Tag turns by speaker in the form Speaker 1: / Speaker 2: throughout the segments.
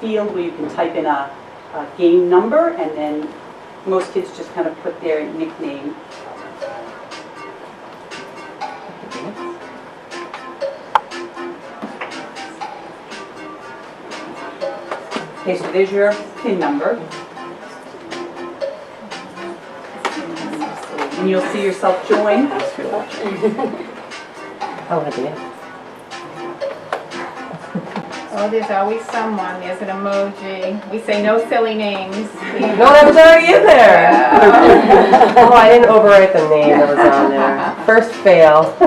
Speaker 1: field where you can type in a, a game number, and then most kids just kind of put their nickname. Okay, so there's your pin number. And you'll see yourself join.
Speaker 2: Oh, dear.
Speaker 3: Oh, there's always someone, there's an emoji. We say no silly names.
Speaker 2: No, that was already in there.
Speaker 3: Yeah.
Speaker 2: Oh, I didn't overwrite the name that was on there. First fail.
Speaker 3: Is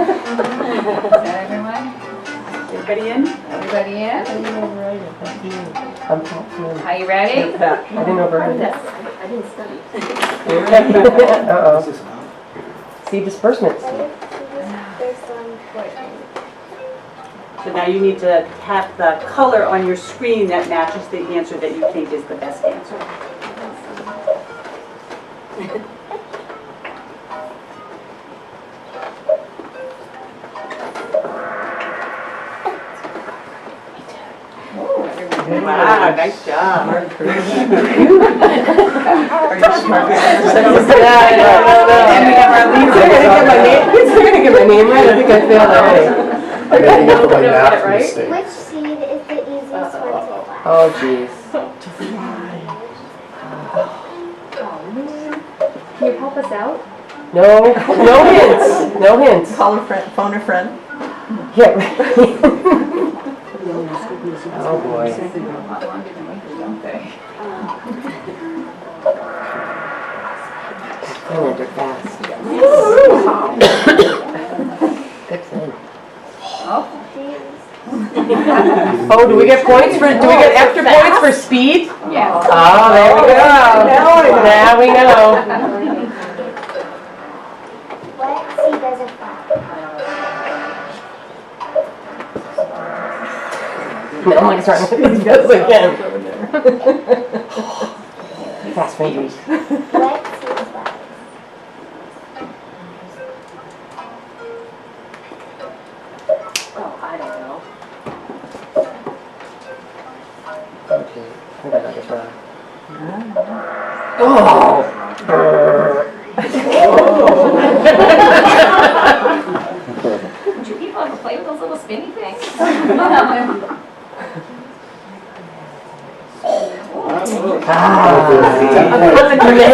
Speaker 3: that everyone?
Speaker 1: Everybody in?
Speaker 3: Everybody in?
Speaker 2: I'm- I
Speaker 3: Are you ready?
Speaker 2: didn't overwrite it.
Speaker 4: I didn't study.
Speaker 2: Uh-oh. See disbursements.
Speaker 1: So now you need to tap the color on your screen that matches the answer that you think is the best answer. Wow, nice job.
Speaker 3: And we have our
Speaker 2: They're gonna get my name, they're gonna get my name right, I think I failed already.
Speaker 5: I gotta get
Speaker 3: No,
Speaker 5: my math
Speaker 3: right?
Speaker 5: mistake.
Speaker 6: Which seed is the easiest one to fly?
Speaker 2: Oh, jeez.
Speaker 4: Can you help us out?
Speaker 2: No, no hints, no hints.
Speaker 7: Call a friend, phone a friend.
Speaker 2: Yeah. right. Oh, boy.
Speaker 3: A lot longer than we do, don't they?
Speaker 2: Oh, they're fast. Good thing.
Speaker 3: Oh,
Speaker 2: Oh, do we get points for, do we get extra points for speed?
Speaker 3: yeah.
Speaker 2: Oh, there we go. Now we know.
Speaker 6: What seed doesn't fly?
Speaker 2: I'm like starting to think this again. Fast fingers.
Speaker 6: What seed flies?
Speaker 4: Oh, I don't know.
Speaker 2: Oh, gee. I think I got this wrong. Oh!
Speaker 4: Do people ever play with those little spinny things?
Speaker 2: Ah. You're making it,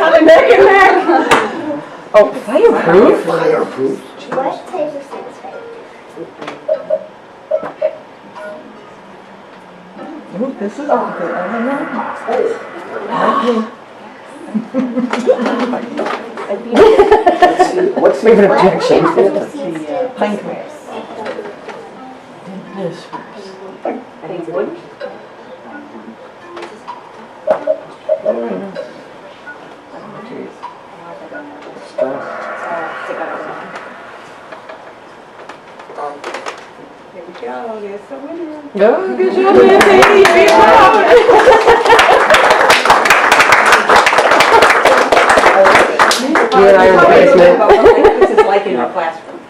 Speaker 2: I'm making it. Oh, fireproof?
Speaker 5: Fireproof.
Speaker 6: What type of seed is fake?
Speaker 7: Ooh, this is all good. I don't know.
Speaker 5: What's
Speaker 2: We have an
Speaker 5: the,
Speaker 6: What
Speaker 2: objection.
Speaker 6: type of seeds do
Speaker 7: Pine
Speaker 6: whispers?
Speaker 4: I think wood.
Speaker 3: Here we go, there's the winner.
Speaker 2: Oh, good job, Nancy. You're proud. You and I are in the basement.
Speaker 1: This is like in our classroom.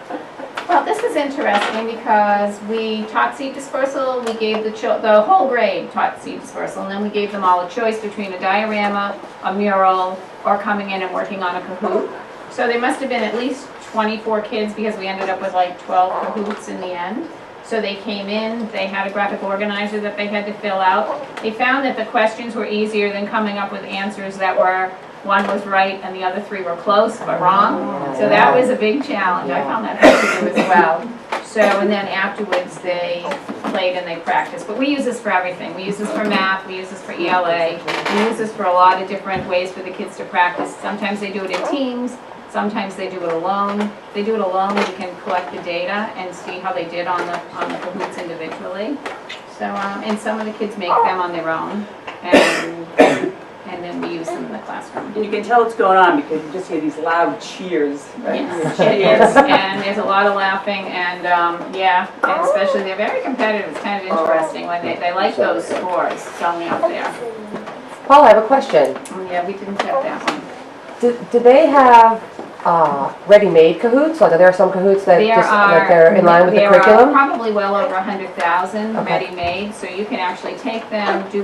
Speaker 3: Well, this is interesting because we taught seed dispersal, we gave the chil, the whole grade taught seed dispersal, and then we gave them all a choice between a diorama, a mural, or coming in and working on a Kahoot. So there must have been at least 24 kids because we ended up with like 12 Kahoots in the end. So they came in, they had a graphic organizer that they had to fill out. They found that the questions were easier than coming up with answers that were, one was right and the other three were close but wrong. So that was a big challenge. I found that hard to do as well. So, and then afterwards, they played and they practiced. But we use this for everything. We use this for math, we use this for ELA. We use this for a lot of different ways for the kids to practice. Sometimes they do it in teams, sometimes they do it alone. If They do it alone, we can collect the data and see how they did on the, on the Kahoots individually. So, um, and some of the kids make them on their own, and, and then we use them in the classroom.
Speaker 1: And you can tell what's going on because you just hear these loud cheers.
Speaker 3: Yes, it is, and there's a lot of laughing, and, um, yeah, and especially, they're very competitive, it's kind of interesting, when they, they like those scores, going out there.
Speaker 2: Paul, I have a question.
Speaker 3: Oh, Yeah, we didn't get that one.
Speaker 2: Do do they have uh, ready-made cahoots? Like, are there some cahoots that
Speaker 3: There
Speaker 2: just,
Speaker 3: are.
Speaker 2: that they're in line with the
Speaker 3: There are
Speaker 2: curriculum?
Speaker 3: probably well over 100,000
Speaker 2: Okay.
Speaker 3: ready-made, so you can actually take them, do